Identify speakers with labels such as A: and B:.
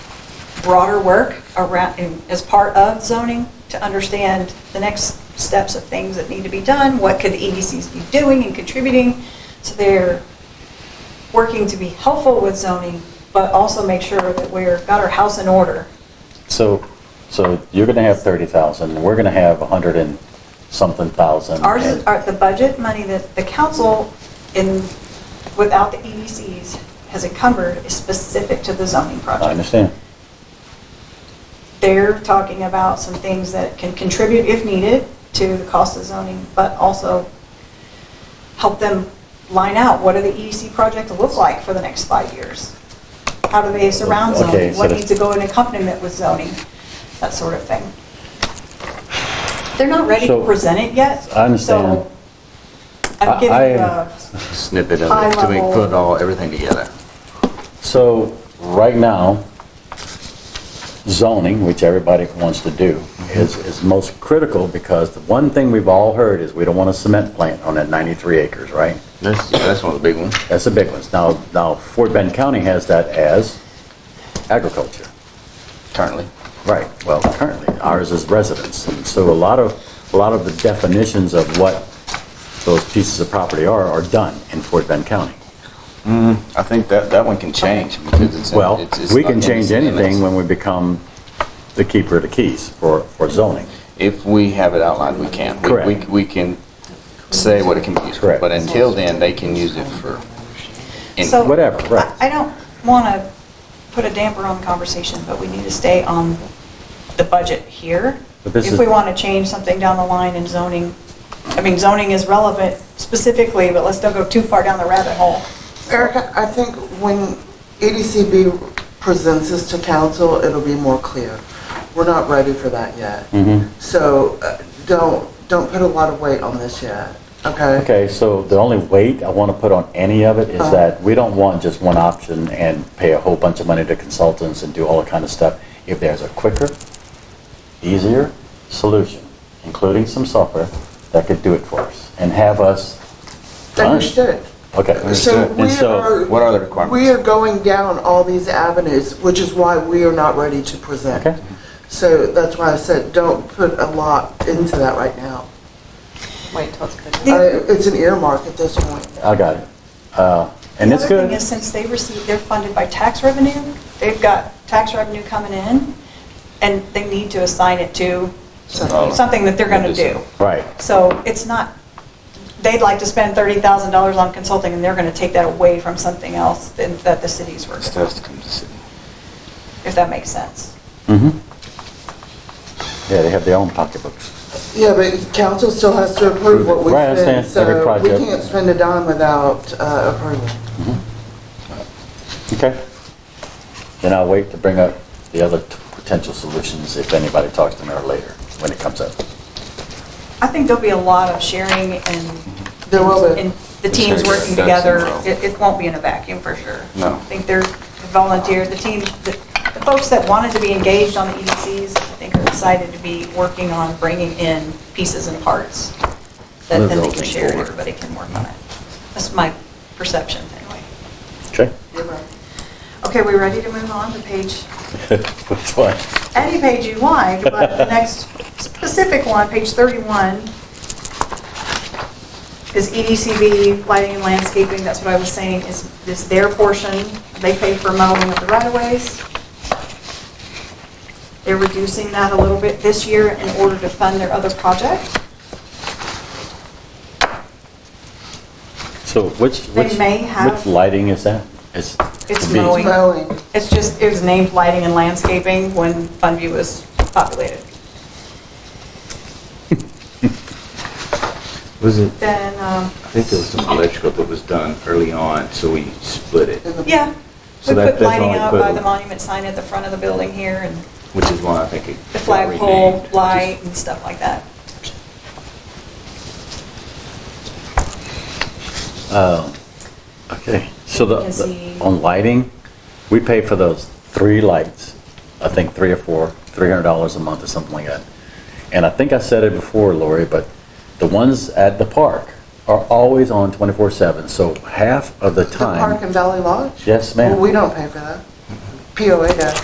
A: broader work around, in- as part of zoning, to understand the next steps of things that need to be done, what could the EDCs be doing and contributing. So they're working to be helpful with zoning, but also make sure that we're, got our house in order.
B: So, so you're going to have 30,000, and we're going to have 100 and something thousand.
A: Ours,
B: and-
A: is- our- the budget money that the council in, without the EDCs has encumbered is specific to the zoning project.
B: I understand.
A: They're talking about some things that can contribute if needed to the cost of zoning, but also help them line out, what do the E EDC projects look like for the next five years? How do they surround
B: Okay,
A: zoning?
B: so
A: What
B: the-
A: needs to go in accompaniment with zoning? That sort of thing. They're not ready to
B: So-
A: present it yet.
B: I understand.
A: so I'm
B: I-
A: giving uh,
B: I-
A: you a
C: snippet of
A: High
C: it to make,
A: level.
C: put it all, everything together.
B: So, right now, zoning, which everybody wants to do, is, is most critical because the one thing we've all heard is we don't want a cement plant on that 93 acres, right?
C: That's, that's one of the big ones.
B: That's the big ones. Now, now Fort Bend County has that as agriculture.
C: currently.
B: Right, well, currently, ours is residence, and so a lot of, a lot of the definitions of what those pieces of property are, are done in Fort Bend County.
C: I think that, that one can change because it's.
B: Well,
C: it's- it's
B: we
C: not
B: can
C: in the
B: change
C: city limits.
B: anything when we become the keeper of the keys for, for zoning.
C: If we have it outlined, we can. We-
B: Correct.
C: We, we can say what it can be used for,
B: Correct.
C: but until then, they can use it for. any-
A: So-
B: Whatever, right.
A: I I don't want to put a damper on the conversation, but we need to stay on the budget here.
B: But this
A: If
B: is-
A: we want to change something down the line in zoning, I mean, zoning is relevant specifically, but let's don't go too far down the rabbit hole.
D: Erica, I think when EDCB presents this to council, it'll be more clear. We're not ready for that yet.
C: Mm-hmm.
D: So uh, don't, don't put a lot of weight on this yet, okay?
B: Okay, so the only weight I want to put on any of it is
D: Uh-huh.
B: that we don't want just one option and pay a whole bunch of money to consultants and do all that kind of stuff. If there's a quicker, easier solution, including some software, that could do it for us and have us done.
D: Understood.
B: Okay.
D: So
C: Understood.
D: we
B: And so,
D: are.
C: what are the requirements?
D: We are going down all these avenues, which is why we are not ready to present.
B: Okay.
D: So that's why I said, don't put a lot into that right now.
E: Wait till it's good.
A: Yeah.
D: Uh, It's an earmark at this point.
B: I got it. Uh, And it's
A: The other thing
B: good.
A: is, since they receive, they're funded by tax revenue, they've got tax revenue coming in, and they need to assign it to
C: Oh.
A: something that they're going to do.
B: Right.
A: So it's not, they'd like to spend $30,000 on consulting, and they're going to take that away from something else than- that the city's working on,
C: Stuff to come to the city.
A: if that makes sense.
B: Mhm. Yeah, they have their own pocketbooks.
D: Yeah, but council still has to approve what we
B: Right, I
D: spend,
B: understand. Every
D: so we
B: project.
D: can't spend a dime without uh, approval.
B: Okay. Mm-hmm. Then I'll wait to bring up the other t- potential solutions if anybody talks to me or later when it comes up.
A: I think there'll be a lot of sharing and.
D: There will be.
A: and the
C: It's
A: teams
C: very
A: working
C: good.
A: together.
C: That's
A: It, it won't be in a vacuum for sure.
C: No.
A: I think they're volunteer, the team, the the folks that wanted to be engaged on the EDCs, I think are excited to be working on bringing in pieces and parts that then they can
C: Moving
A: share and
C: forward.
A: everybody can work on it. That's my perception anyway.
B: Okay.
A: Okay, we ready to move on to page,
B: Which one?
A: any page you like, but the next specific one, page 31, is E EDCB, lighting and landscaping, that's what I was saying, is, is their portion. They pay for mowing of the right-of-ways. They're reducing that a little bit this year in order to fund their other project.
B: So which,
A: They
B: which,
A: may have-
B: which lighting is that? It's
A: It's
B: to be-
A: mowing.
D: Mowing.
A: It's just, it was named lighting and landscaping when Funview was populated.
C: Was it?
A: Then, um,
C: I think there was some electrical that was done early on, so we split it,
D: in the-
A: yeah, we
C: So that-
A: put
C: that's
A: lighting
C: all
A: out by
C: equivalent.
A: the monument sign at the front of the building here and
C: which is why I think it.
A: the
C: got
A: flagpole
C: renamed.
A: light and stuff like that.
B: Um, Okay, so the,
A: You can
B: the-
A: see-
B: on lighting, we pay for those three lights, I think three or four, $300 a month or something like that. And I think I said it before, Lori, but the ones at the park are always on 24/7, so half of the
D: The
B: time.
D: park and Valley Lodge?
B: Yes, ma'am.
D: Well, we don't pay for that. POA does.